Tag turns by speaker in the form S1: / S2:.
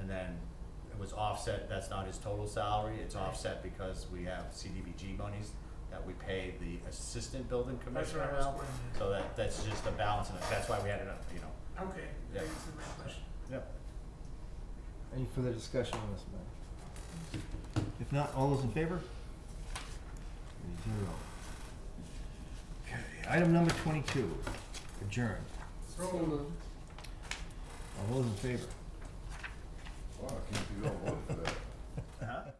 S1: and then it was offset, that's not his total salary, it's
S2: Right.
S1: offset because we have CDBG monies that we pay the assistant building
S2: That's what
S1: commissioner
S2: I was
S1: now.
S2: wondering.
S1: So that, that's just a balance, and that's why we had it up, you know.
S2: Okay,
S1: Yeah.
S2: that answered my question.
S1: Yep.
S3: Any further discussion on this matter? If not, all those in favor? Three zero. Okay, item number twenty-two, adjourn.
S2: So moved.
S3: All those in favor?
S4: Wow, I can't believe I voted for that.
S1: Uh-huh.